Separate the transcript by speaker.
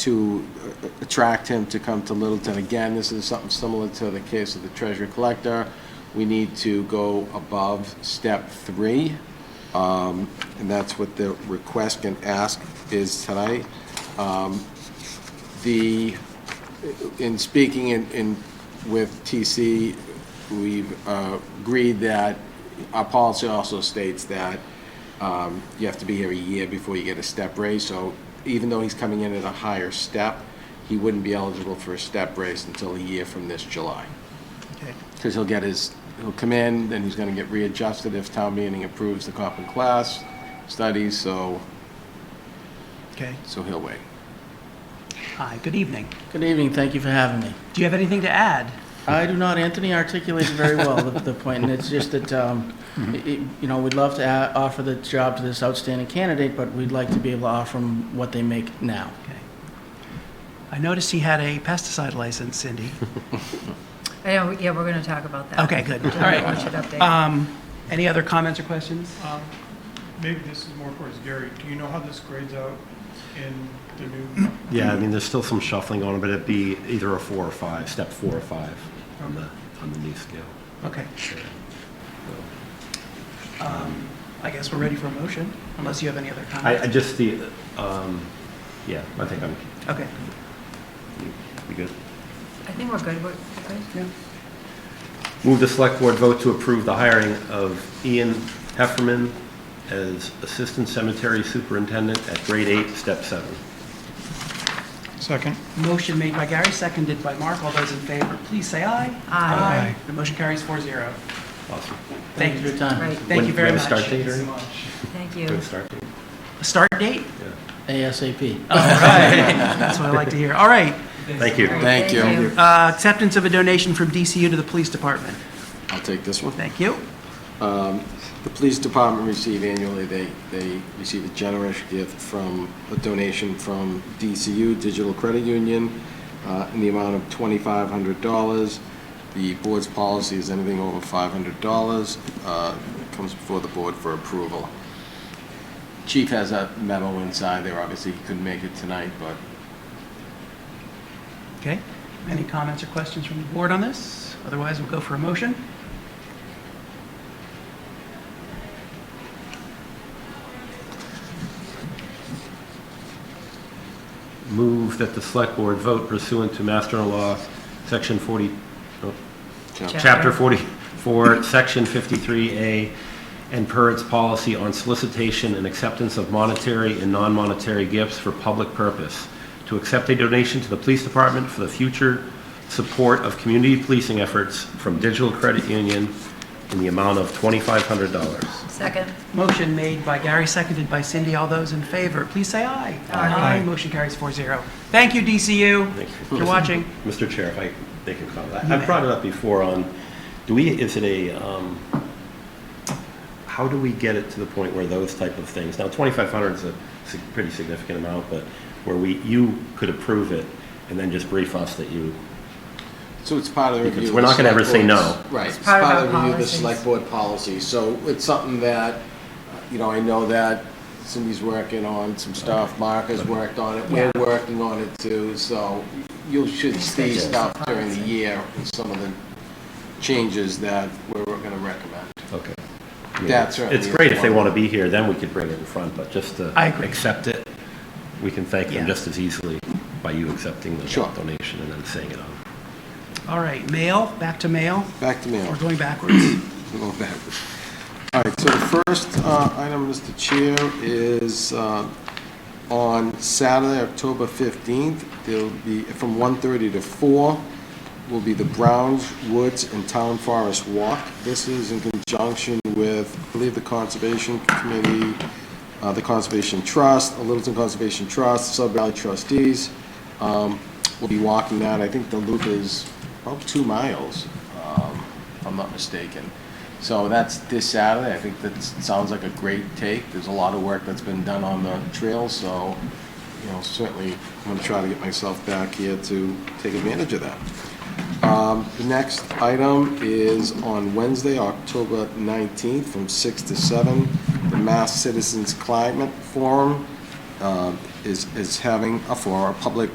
Speaker 1: to uh, attract him to come to Littleton. Again, this is something similar to the case of the treasurer collector. We need to go above step three, um, and that's what the request and ask is tonight. Um, The, in speaking in, in, with TC, we've uh, agreed that, our policy also states that um, you have to be here a year before you get a step raise, so even though he's coming in at a higher step, he wouldn't be eligible for a step raise until a year from this July.
Speaker 2: Okay.
Speaker 1: Because he'll get his, he'll come in, then he's gonna get readjusted if town meeting approves the comp and class studies, so,
Speaker 2: Okay.
Speaker 1: so he'll wait.
Speaker 2: Hi, good evening.
Speaker 3: Good evening, thank you for having me.
Speaker 2: Do you have anything to add?
Speaker 3: I do not, Anthony articulated very well the, the point, and it's just that, um, i- i- you know, we'd love to a- offer the job to this outstanding candidate, but we'd like to be able to offer them what they make now.
Speaker 2: Okay. I noticed he had a pesticide license, Cindy.
Speaker 4: I know, yeah, we're going to talk about that.
Speaker 2: Okay, good. All
Speaker 4: I want you
Speaker 2: right.
Speaker 4: to update.
Speaker 2: Um, Any other comments or questions?
Speaker 5: Um, Maybe this is more towards Gary. Do you know how this grades out in the new?
Speaker 6: Yeah, I mean, there's still some shuffling on it, but it'd be either a four or five, step four or five on the, on the new scale.
Speaker 2: Okay. Um, I guess we're ready for a motion, unless you have any other
Speaker 6: I, I
Speaker 2: comments.
Speaker 6: just, the, um, yeah, I think I'm,
Speaker 2: Okay.
Speaker 6: we good.
Speaker 4: I think we're good, we're we're good.
Speaker 6: Move the select board vote to approve the hiring of Ian Hefferman as Assistant Cemetery Superintendent at grade eight, step seven.
Speaker 5: Second.
Speaker 2: Motion made by Gary, seconded by Mark. All those in favor, please say aye.
Speaker 4: Aye.
Speaker 2: The motion carries four zero.
Speaker 6: Awesome.
Speaker 3: Thank you for your time.
Speaker 4: Right,
Speaker 2: Thank you
Speaker 6: When-
Speaker 2: very
Speaker 6: when
Speaker 2: much.
Speaker 6: start date, Ernie?
Speaker 4: thank you.
Speaker 6: Good start date.
Speaker 2: Start date?
Speaker 3: ASAP.
Speaker 2: That's what I like to hear. All right.
Speaker 6: Thank you.
Speaker 4: All
Speaker 1: Thank
Speaker 4: right,
Speaker 1: you.
Speaker 2: Uh, Acceptance of a donation from DCU to the police department.
Speaker 1: I'll take this one.
Speaker 2: Thank you.
Speaker 1: The police department receive annually, they, they receive a generous gift from, a donation from DCU, Digital Credit Union, uh, in the amount of $2,500. The board's policy is anything over $500, uh, comes before the board for approval. Chief has a memo inside there, obviously he couldn't make it tonight, but
Speaker 2: Okay. Any comments or questions from the board on this? Otherwise, we'll go for a motion.
Speaker 6: Move that the select board vote pursuant to Master Law, Section 40, oh, Chapter 44, Section 53A, and per its policy on solicitation and acceptance of monetary and non-monetary gifts for public purpose, to accept a donation to the police department for the future support of community policing efforts from Digital Credit Union in the amount of $2,500.
Speaker 4: Second,
Speaker 2: Motion made by Gary, seconded by Cindy. All those in favor, please say aye.
Speaker 4: Aye.
Speaker 2: Motion carries four zero. Thank you, DCU,
Speaker 6: Thank you.
Speaker 2: for watching.
Speaker 6: Mr. Chair, if I, they can comment. I- I've brought it up before on, do we, is it a, um, how do we get it to the point where those type of things, now 2,500 is a sig- pretty significant amount, but where we, you could approve it and then just brief us that you,
Speaker 1: So it's part of the
Speaker 6: Because
Speaker 1: review. of
Speaker 6: we're
Speaker 1: the
Speaker 6: not gonna ever
Speaker 1: select
Speaker 6: say
Speaker 1: board's-
Speaker 6: no.
Speaker 1: Right, it's
Speaker 4: part
Speaker 1: part
Speaker 4: of
Speaker 1: of the
Speaker 4: our
Speaker 1: review of the
Speaker 4: policies.
Speaker 1: select board policy, so it's something that, uh, you know, I know that Cindy's working on some stuff, Mark has worked on it, we're working on it too, so you should see
Speaker 4: just
Speaker 1: stuff
Speaker 4: the
Speaker 1: during the
Speaker 4: policy.
Speaker 1: year, and some of the changes that we're gonna recommend.
Speaker 6: okay. I mean,
Speaker 1: That's right.
Speaker 6: It's great if they want to be here, then we could bring it in front, but just to.
Speaker 2: I agree.
Speaker 6: Accept it, we can thank
Speaker 2: Yeah.
Speaker 6: them just as easily by you accepting the
Speaker 1: Sure.
Speaker 6: donation and then saying it on.
Speaker 2: All right, mail, back to mail.
Speaker 1: Back to me.
Speaker 2: We're going backwards.
Speaker 1: We'll go backwards. All right, so the first uh, item, Mr. Chair, is uh, on Saturday, October 15th, there'll be, from 1:30 to 4, will be the Browns Woods and Town Forest Walk. This is in conjunction with, I believe, the Conservation Committee, uh, the Conservation Trust, the Littleton Conservation Trust, Sub Valley Trustees. Um, We'll be walking that, I think the loop is about two miles, um, if I'm not mistaken. So that's this Saturday. I think that sounds like a great take. There's a lot of work that's been done on the trail, so, you know, certainly I'm going to try to get myself back here to take advantage of that. Um, The next item is on Wednesday, October 19th, from 6 to 7, the Mass Citizens Climate Forum. uh, is, is having a, for a public